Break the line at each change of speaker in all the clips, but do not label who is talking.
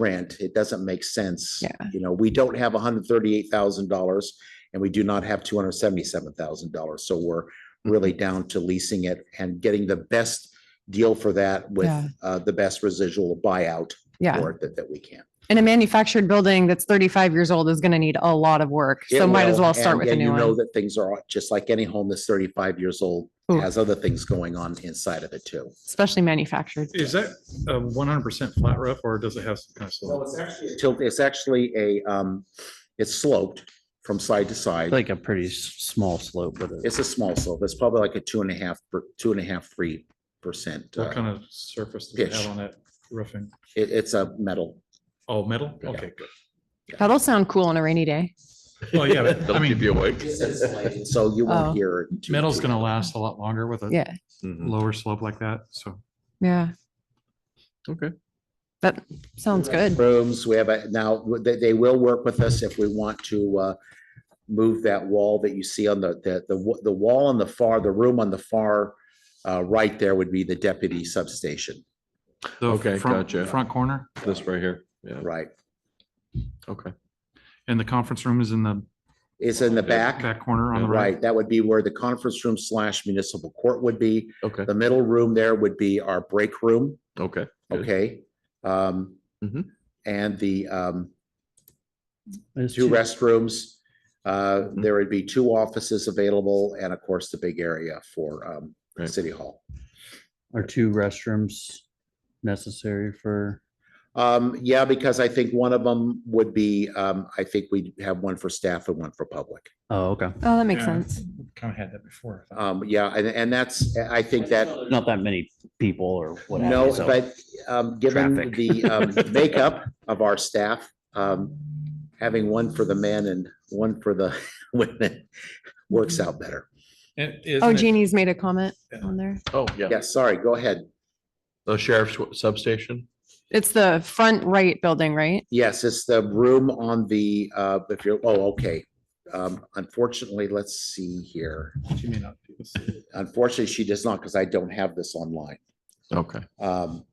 rent. It doesn't make sense.
Yeah.
You know, we don't have hundred thirty-eight thousand dollars and we do not have two hundred seventy-seven thousand dollars. So we're
Mm-hmm.
really down to leasing it and getting the best deal for that with
Yeah.
uh, the best residual buyout
Yeah.
for it that, that we can.
And a manufactured building that's thirty-five years old is gonna need a lot of work.
It
So might as
will,
well start
and-
with a
and
new
You know
one.
that things are, just like any home that's thirty-five years old,
Ooh.
has other things going on inside of it too.
Especially manufactured.
Is that one hundred percent flat roof or does it have some kind of
So
slope?
it's actually. Tilt, it's actually a, um, it's sloped from side to side.
Like a pretty s- small slope with it.
It's a small slope. It's probably like a two and a half, per- two and a half, three percent.
What
uh,
kind of surface do they
pitch.
have on that roofing?
It, it's a metal.
Oh, metal?
Yeah.
Okay, good.
That'll sound cool on a rainy day.
Well, yeah, but, I mean,
So you
Oh.
won't hear. it too-
metal's
too-
gonna last a lot longer with a
Yeah,
lower slope like that, so.
yeah.
Okay.
That sounds good.
Rooms, we have a, now, they, they will work with us if we want to, uh, move that wall that you see on the, the, the, wa- the wall on the far, the room on the far, uh, right there would be the deputy substation,
the
Okay,
front-
gotcha.
Front corner
This right here. Yeah.
right?
Okay.
and the conference room is in the
It's in the back,
back corner on the right.
right? That would be where the conference room slash municipal court would be.
Okay.
The middle room there would be our break room.
Okay. Good.
Okay, um.
Mhm.
And the um
There's
two
two-
restrooms, uh,
Mhm.
there would be two offices available and of course the big area for um
Right.
City Hall.
Are two restrooms necessary for?
Um, yeah, because I think one of them would be, um, I think we'd have one for staff and one for public.
Oh, okay.
Oh, that makes
Yeah.
sense.
Kind of had that before. I thought.
Um, yeah, and and that's, I think that
Not that many people or whatever.
No, but um, given
Traffic.
the um, makeup of our staff, um, having one for the men and one for the women works
Mm-hmm.
out better.
And
Oh,
isn't it-
Jeannie's made a comment
Yeah.
on there.
Oh, yeah,
Yeah, sorry, go ahead.
the sheriff's substation.
It's the front right building, right?
Yes, it's the room on the, uh, if you're, oh, okay. Um, Unfortunately, let's see here.
She may not be able to see it.
Unfortunately, she does not because I don't have this online.
Okay.
Um,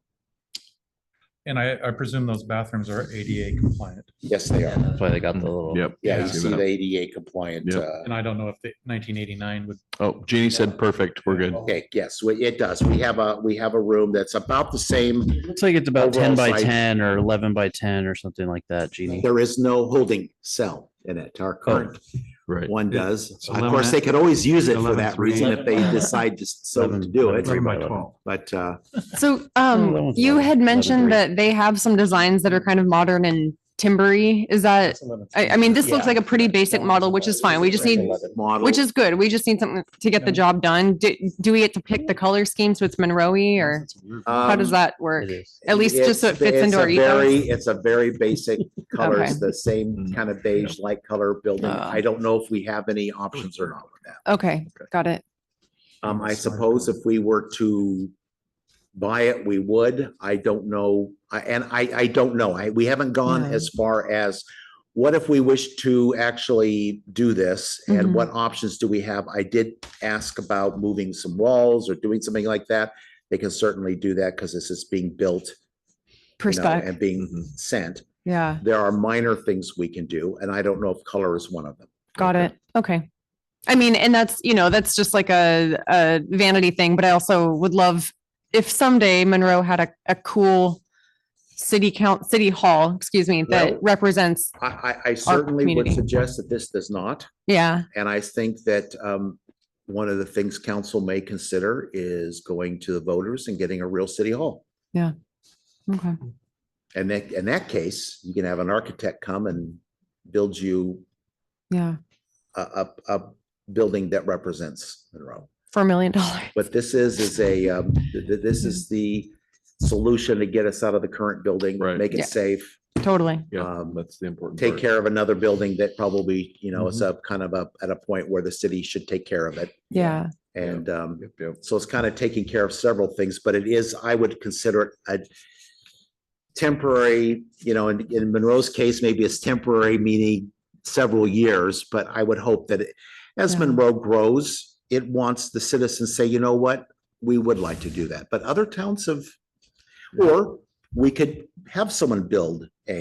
And I, I presume those bathrooms are ADA compliant.
Yes, they are.
That's why they got the little.
Yep.
Yeah, you
Give it
see
up.
the ADA compliant.
Yep.
uh,
And I don't know if the nineteen eighty-nine would,
Oh, Jeannie said, perfect, we're good.
Okay, yes, we- it does. We have a, we have a room that's about the same
Mm-hmm.
Looks like it's about ten
Overall
by
size.
ten or eleven by ten or something like that, Jeannie.
There is no holding cell in it. Our current
Right.
one
Oh, Yeah.
does.
It's
Of
11
course, they could always use it for
11,
that
three.
reason if they decide to so to do it.
three by
Eleven.
twelve.
But uh,
So,
that
um,
one's
you
not-
had
not a
mentioned
great-
that they have some designs that are kind of modern and timbery. Is that,
It's 11.
I, I mean, this looks like a pretty basic model, which is fine. We just need,
model.
which is good. We just need something to get the
Yeah.
job done. Do, do we get to pick the color scheme? So it's Monroe or
That's weird.
how does
Um,
that work?
It is.
At least just so it
it's-
fits
it's
into
a
our
very-
ethos.
It's a very basic
Okay.
colors, the same kind of beige light color building.
Uh.
I don't know if we have any options or not with that.
Okay, got it.
Um, I suppose if we were to buy it, we would. I don't know. I, and I, I don't know. I, we haven't gone
No.
as far as what if we wish to actually do this and
Mhm.
what options do we have? I did ask about moving some walls or doing something like that. They can certainly do that because this is being built you know,
Perspec,
and being
Mhm.
sent.
yeah,
There are minor things we can do, and I don't know if color is one of them.
got it. Okay. I mean, and that's, you know, that's just like a, a vanity thing, but I also would love if someday Monroe had a, a cool city count, city hall, excuse me, that
Well-
represents,
I, I, I certainly would
community.
suggest that this does not.
yeah,
And I think that um, one of the things council may consider is going to the voters and getting a real city hall.
okay.
And that, in that case, you can have an architect come and build you
Yeah,
a, a, a building that represents Monroe.
for a million dollars.
What this is, is a, um, th- th- this is the solution to get us out of the current building,
Right.
make
Yeah.
it safe.
Totally.
Yeah,
Um,
that's the important.
Take
part.
care of another building that probably, you know,
Mm-hmm.
is up kind of up at a point where the city should take care of it.
Yeah.
And um,
Yep, yep.
So it's kind of taking care of several things, but it is, I would consider it a temporary, you know, in, in Monroe's case, maybe it's temporary, meaning several years, but I would hope that it- as
Yeah.
Monroe grows, it wants the citizens say, you know what? We would like to do that, but other towns have, or we could have someone build a